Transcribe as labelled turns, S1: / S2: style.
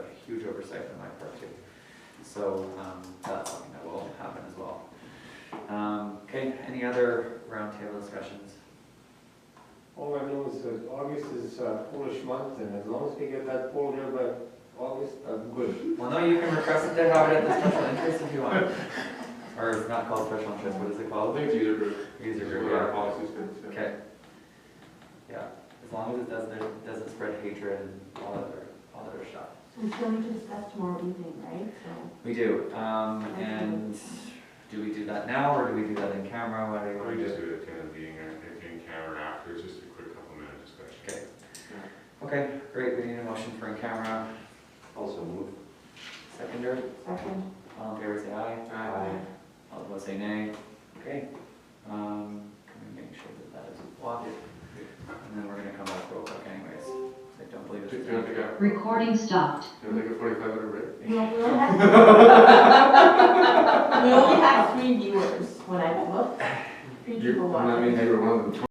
S1: huge oversight on my part too. So, um, that's something that will happen as well. Um, okay, any other roundtable discussions?
S2: All I know is that August is uh, Polish month, and as long as we get that poll here by August, I'm good.
S1: Well, no, you can request it to have it at the special interest if you want. Or it's not called special interest, what is it
S3: I
S1: called?
S3: think it's either group.
S1: User
S3: Is
S1: group,
S3: what our
S1: yeah.
S3: policy states, yeah.
S1: Okay. Yeah, as long as it doesn't, doesn't spread hatred and all other, all other stuff.
S4: We're going to discuss tomorrow evening, right? So
S1: We do, um, and do we do that now, or do we do that in camera, what do you
S3: Let
S1: want
S3: me
S1: to
S3: just
S1: do?
S3: do it at the end of the meeting, or if you encounter after, it's just a quick couple minute discussion.
S1: Okay. Okay, great, we need a motion for in camera,
S2: Also move.
S1: seconder,
S4: second,
S1: all in favor say aye,
S4: uh,
S1: all opposed say nay, okay. Um, can we make sure that that is locked? And then we're gonna come back real quick anyways, 'cause I don't believe
S3: Do
S1: it's.
S3: you want to take a,
S5: Recording stopped.
S3: do you want to take a forty-five minute break?
S4: we'll, we'll have. We only have three viewers when I look. Three people
S3: Well,
S4: watching.
S3: That means you were one of the